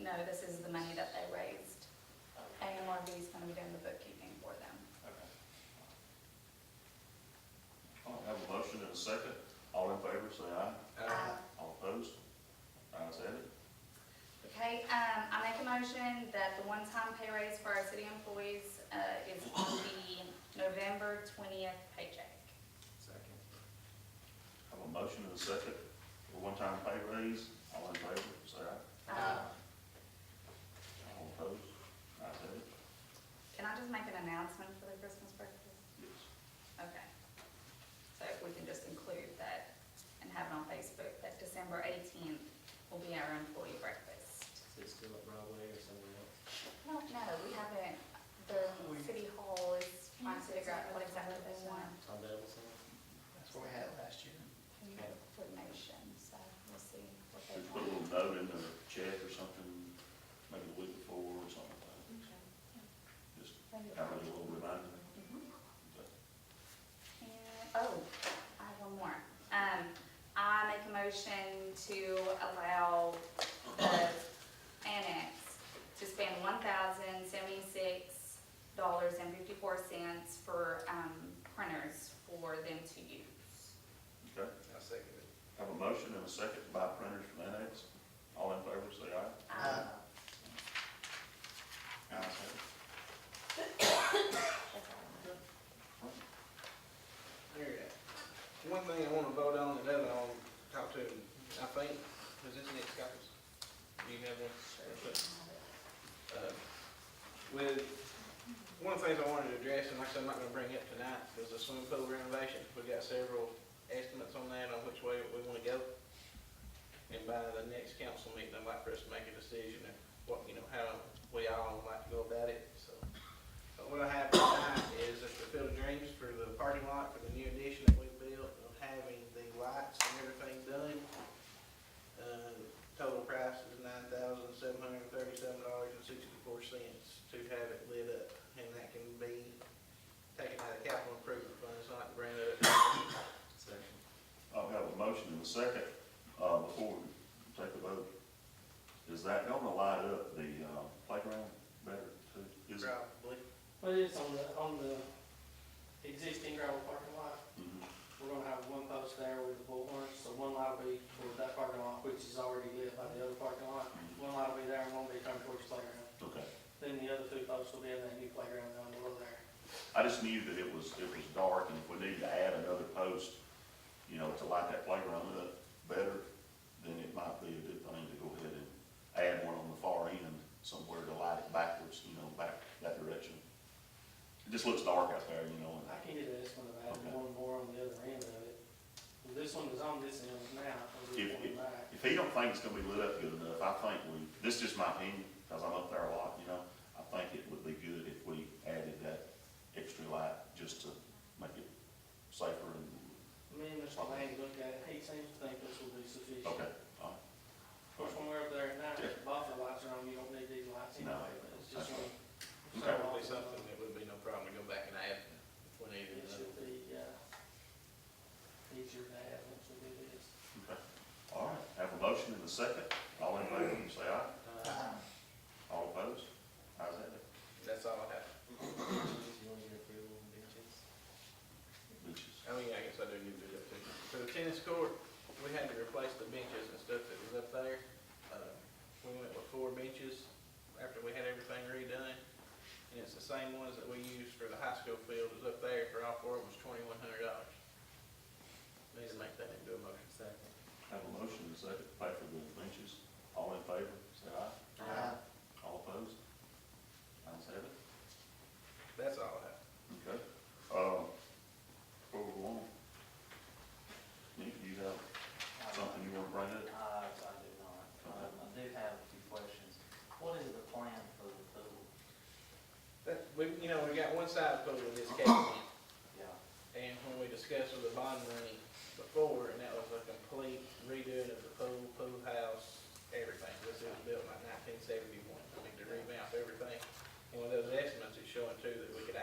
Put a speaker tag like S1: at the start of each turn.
S1: no, this is the money that they raised. AMRV is gonna be doing the bookkeeping for them.
S2: All right, have a motion and a second. All in favor, say aye.
S1: Uh,
S2: All opposed? Ayes have it.
S1: Okay, um, I make a motion that the one-time pay raise for our city employees, uh, is the November twentieth paycheck.
S3: Second.
S2: Have a motion and a second for one-time pay raise. All in favor, say aye.
S1: Um,
S2: All opposed? Ayes have it.
S1: can I just make an announcement for the Christmas breakfast?
S2: Yes.
S1: Okay. So if we can just include that and have it on Facebook, that December eighteenth will be our employee breakfast.
S3: Is it still at Broadway or somewhere else?
S1: No, no, we haven't, the city hall is trying to figure out what exactly they want,
S3: Tom Bevel somewhere?
S4: That's what we had last year.
S1: we need information, so we'll see what they
S2: Should put a
S1: want.
S2: little note in the chat or something, maybe the week before or something like that. Just
S1: Maybe-
S2: have a little reminder.
S1: Mhm.
S2: But
S1: And- Oh, I have one more. Um, I make a motion to allow the annex to spend one thousand seventy-six dollars and fifty-four cents for, um, printers for them to use.
S2: Okay,
S4: I'll second it.
S2: have a motion and a second to buy printers from Annex. All in favor, say aye.
S1: Um,
S2: Ayes have it.
S1: that's all.
S4: There it is. One thing I wanna vote on, and another I'll talk to, him. I think, was this next copy? Do you have one? Uh, With, one of the things I wanted to address, and like I said, I'm not gonna bring it up tonight, was the swimming pool renovation. We got several estimates on that, on which way we wanna go. And by the next council meeting, I'd like for us to make a decision of what, you know, how we all like to go about it, so. But what I have tonight is at the Field of Dreams for the parking lot for the new addition that we built, of having the lights and everything done. Uh, total price is nine thousand seven hundred and thirty-seven dollars and sixty-four cents to have it lit up, and that can be taken out of capital improvement fund, it's not branded up.
S3: Second.
S2: I'll have a motion in a second, uh, before we take the vote. Is that gonna light up the, uh, playground better too? Is it?
S4: Probably.
S5: But it's on the, on the existing gravel parking lot,
S2: Mhm.
S5: we're gonna have one post there with the bullhorn, so one light will be towards that parking lot, which is already lit by the other parking lot. One light will be there and one will be turned towards the playground.
S2: Okay.
S5: Then the other two posts will be in that new playground down below there.
S2: I just knew that it was, it was dark and if we needed to add another post, you know, to light that playground up better, then it might be a good thing to go ahead and add one on the far end somewhere to light it backwards, you know, back that direction. It just looks dark out there, you know, and
S5: I can get this one about
S2: Okay.
S5: one more on the other end of it. This one is on this end now, I'm
S2: If-
S5: just going back.
S2: If he don't think it's gonna be lit up good enough, I think we, this is just my opinion, because I'm up there a lot, you know, I think it would be good if we added that extra light just to make it safer and,
S5: Me and Mr. Lane looked at it, he seems to think this will be sufficient.
S2: okay, all
S5: Of course, when we're up there at night, the buffer lights are on, you don't need these lights
S2: No.
S5: anyway, but it's just
S2: Okay.
S5: one.
S4: So it would be something that would be no problem to go back and add if we
S5: It
S4: needed another.
S5: should be, uh, easier to have once we do this.
S2: right, okay. All right, have a motion in a second, all in favor, say aye,
S5: Uh,
S2: all opposed, ayes have it,
S4: That's all I have.
S3: You want your approval on benches?
S2: Benches.
S4: I mean, I guess I do need to do that too. For the tennis court, we had to replace the benches and stuff that was up there. Uh, We went with four benches after we had everything redone. And it's the same ones that we used for the high school field was up there for all four of them was twenty-one hundred dollars. Need to make that into a motion.
S3: Second.
S2: Have a motion in a second, to pay for the benches, all in favor, say aye, all opposed, ayes have it.
S4: That's all I have.
S2: Okay, uh, where we want? Nick, you have something you wanna bring up?
S6: Uh, I do not. Um, I do have a few questions. What is the plan for the pool?
S4: That, we, you know, we got one side pool in this case.
S6: Yeah.
S4: And when we discussed with the bond money before, and that was a complete redoing of the